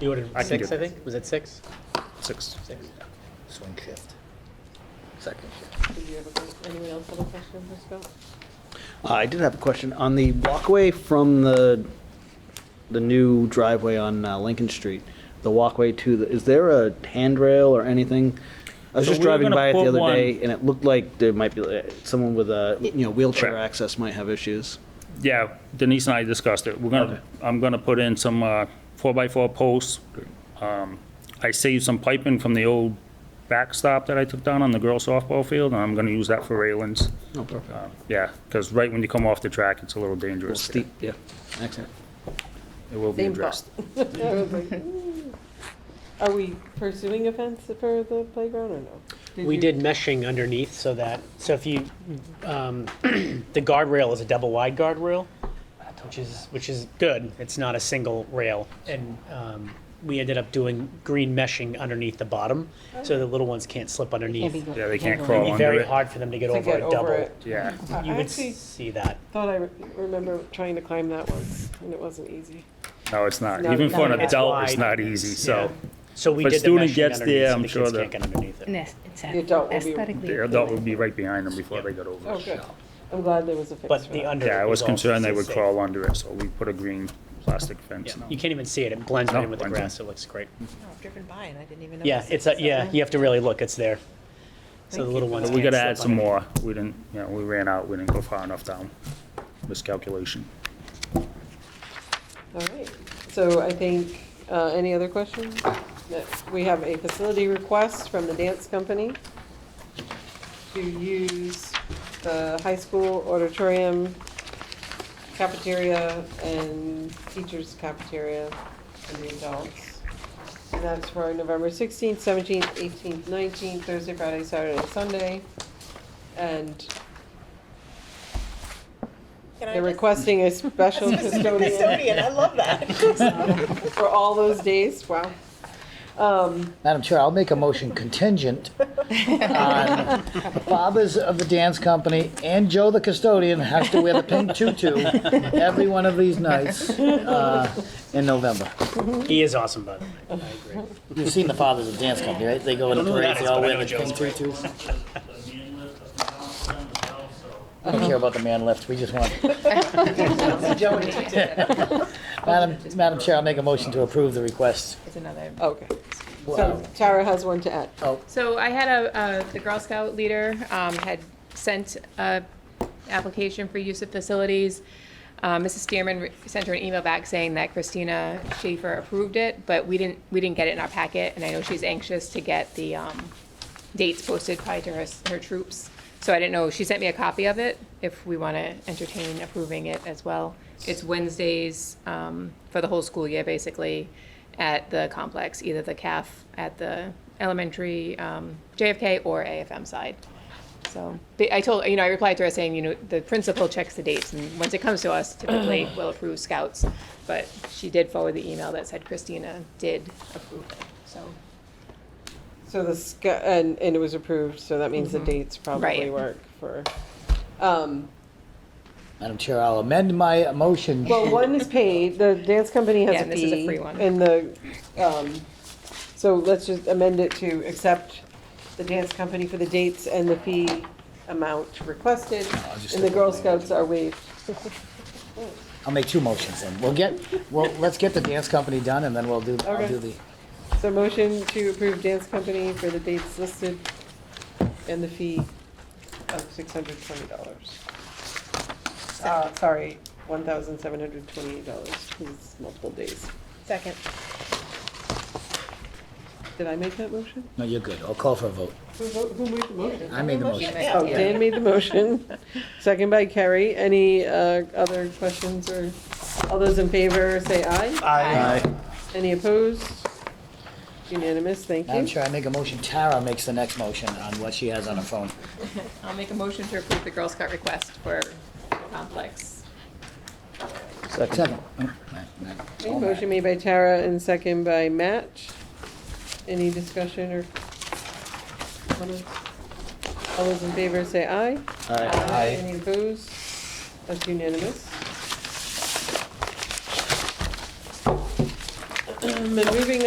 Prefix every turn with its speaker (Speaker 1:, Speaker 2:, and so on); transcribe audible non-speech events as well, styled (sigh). Speaker 1: You ordered
Speaker 2: I can
Speaker 1: six,
Speaker 2: do
Speaker 1: I
Speaker 2: it.
Speaker 1: think? Was it six?
Speaker 2: Six.
Speaker 1: Six.
Speaker 3: swing shift. Second shift.
Speaker 4: Did you have a que- anyone else have a question, Ms. Scott?
Speaker 5: I did have a question. On the walkway from the, the new driveway on uh, Lincoln Street, the walkway to the, is there a handrail or anything? I was
Speaker 2: So
Speaker 5: just
Speaker 2: we were
Speaker 5: driving
Speaker 2: gonna
Speaker 5: by it the
Speaker 2: put
Speaker 5: other
Speaker 2: one-
Speaker 5: day, and it looked like there might be uh, someone with a, you know, wheelchair
Speaker 2: Right.
Speaker 5: access might have issues.
Speaker 2: Yeah, Denise and I discussed it. We're gonna, I'm gonna put in some uh, four-by-four posts. Um, I saved some piping from the old backstop that I took down on the girls softball field, and I'm gonna use that for railings.
Speaker 5: Oh, perfect.
Speaker 2: Um, Yeah, because right when you come off the track, it's a little dangerous.
Speaker 5: Steep, yeah. Excellent.
Speaker 2: It will be
Speaker 4: Same
Speaker 2: addressed.
Speaker 4: I was like, "Ooh." Are we pursuing a fence for the playground or no?
Speaker 1: We
Speaker 4: you-
Speaker 1: did meshing underneath so that, so if you, um, (clears throat) the guardrail is a double wide guardrail, which is, which is good. It's not a single rail. And um, we ended up doing green meshing underneath the bottom, so the little ones can't slip underneath. It'd
Speaker 2: Yeah, they can't
Speaker 6: crawl.
Speaker 2: crawl
Speaker 1: be
Speaker 2: under
Speaker 1: very
Speaker 2: it.
Speaker 1: hard for them to get
Speaker 4: To
Speaker 1: over
Speaker 4: get
Speaker 1: a
Speaker 4: over
Speaker 1: double.
Speaker 4: it.
Speaker 2: (laughs) Yeah,
Speaker 4: I
Speaker 1: You
Speaker 4: I
Speaker 1: would
Speaker 4: actually
Speaker 1: see that.
Speaker 4: thought I re- remember trying to climb that once, and it wasn't easy.
Speaker 2: no, it's not.
Speaker 4: No,
Speaker 2: Even for an
Speaker 6: no, it's
Speaker 2: adult, it's
Speaker 1: wide.
Speaker 2: not easy, so
Speaker 1: Yeah. So we
Speaker 2: If a
Speaker 1: did the
Speaker 2: student
Speaker 1: meshing
Speaker 2: gets there,
Speaker 1: underneath so
Speaker 2: I'm
Speaker 1: the
Speaker 2: sure
Speaker 1: kids
Speaker 2: that-
Speaker 1: can't get underneath it.
Speaker 6: And it's it's
Speaker 4: The adult will be-
Speaker 6: aesthetically
Speaker 2: the adult will
Speaker 6: appealing.
Speaker 2: be right behind them before they get over.
Speaker 4: Oh,
Speaker 2: it.
Speaker 4: good. I'm glad there was a fix for that.
Speaker 1: But the under.
Speaker 2: Yeah, I
Speaker 1: is
Speaker 2: was
Speaker 1: also
Speaker 2: concerned they would
Speaker 1: safe.
Speaker 2: crawl under it, so we put a green plastic
Speaker 1: Yeah,
Speaker 2: fence. now.
Speaker 1: You can't even see it. It blends
Speaker 2: No,
Speaker 1: in with the
Speaker 2: blends in.
Speaker 1: grass. It looks great.
Speaker 6: No, I've driven by and I didn't even notice.
Speaker 1: Yeah, it's, a- yeah, you have to really look, it's there. So
Speaker 6: Thank
Speaker 1: the
Speaker 6: you
Speaker 1: little
Speaker 6: for
Speaker 1: ones
Speaker 2: But
Speaker 1: can't
Speaker 2: we gotta
Speaker 1: slip
Speaker 2: add some
Speaker 1: underneath.
Speaker 2: more. We didn't, you know, we ran out, we didn't go far enough down. Miscalculation.
Speaker 4: All right, so I think, uh, any other questions? No. We have a facility request from the dance company to use the high school auditorium cafeteria and teachers cafeteria for the adults. And that's for November 16th, 17th, 18th, 19th, Thursday, Friday, Saturday, Sunday. And they're requesting a
Speaker 6: (laughs)
Speaker 4: (laughs) special custodian
Speaker 6: I love that.
Speaker 4: for all those days, wow. Um,
Speaker 3: Madam Chair, I'll make a motion contingent on Bobbers of the Dance Company and Joe the custodian has to wear the pink tutu every one of these nights uh, in November.
Speaker 1: He is awesome, by the way. I agree.
Speaker 3: You've seen the Fathers of the Dance Company, right? They go in
Speaker 1: Don't
Speaker 3: the
Speaker 1: know
Speaker 3: parades,
Speaker 1: that,
Speaker 3: they all
Speaker 1: but I
Speaker 3: wear
Speaker 1: know
Speaker 3: the pink
Speaker 1: Joe's
Speaker 3: tutus. I don't care about the man lift, we just want.
Speaker 4: (laughs)
Speaker 3: Madam, Madam Chair, I'll make a motion to approve the request.
Speaker 6: It's another.
Speaker 4: okay. So Tara has one to add.
Speaker 3: Oh.
Speaker 7: So I had a, uh, the Girl Scout leader um, had sent a application for use of facilities. Uh, Mrs. Stearman re- sent her an email back saying that Christina Schaefer approved it, but we didn't, we didn't get it in our packet, and I know she's anxious to get the um, dates posted probably to her, s- her troops. So I didn't know, she sent me a copy of it, if we want to entertain approving it as well. It's Wednesdays um, for the whole school year, basically, at the complex, either the CAF at the elementary um, JFK or AFM side. So they- I told, you know, I replied to her saying, you know, the principal checks the dates, and once it comes to us, typically we'll approve scouts. But she did forward the email that said Christina did approve it, so.
Speaker 4: So the, sc- and, and it was approved, so that means the dates probably
Speaker 7: Mm-hmm. Right.
Speaker 4: work for, um,
Speaker 3: Madam Chair, I'll amend my motion.
Speaker 4: well, one is paid, the dance company
Speaker 7: Yeah,
Speaker 4: has a
Speaker 7: and this is a
Speaker 4: fee.
Speaker 7: free one.
Speaker 4: And the, um, so let's just amend it to accept the dance company for the dates and the fee amount requested.
Speaker 3: just
Speaker 4: And the
Speaker 3: take
Speaker 4: Girl
Speaker 3: one there.
Speaker 4: Scouts are waived.
Speaker 3: I'll make two motions then. We'll get, well, let's get the dance company done and then we'll do, I'll
Speaker 4: Okay.
Speaker 3: do the,
Speaker 4: So motion to approve dance company for the dates listed and the fee of six hundred twenty dollars. Uh, sorry, one thousand seven hundred twenty-eight dollars, because it's multiple days.
Speaker 6: (laughs) Second.
Speaker 4: Did I make that motion?
Speaker 3: no, you're good. I'll call for a vote.
Speaker 4: Who vote, who made the motion?
Speaker 3: I made the motion.
Speaker 4: Oh, Dan made the motion, second by Carrie. Any, uh, other questions or, all those in favor, say aye.
Speaker 3: Aye.
Speaker 4: Any opposed? Unanimous, thank you.
Speaker 3: Madam Chair, I make a motion. Tara makes the next motion on what she has on her phone.
Speaker 7: I'll make a motion to approve the Girl Scout request for complex.
Speaker 3: Second. Oh, Matt, Matt.
Speaker 4: Okay, Motion made by Tara and second by Matt. Any discussion or comments? All those in favor say aye.
Speaker 3: Aye.
Speaker 4: Any opposed? That's (clears throat) unanimous. Um, and moving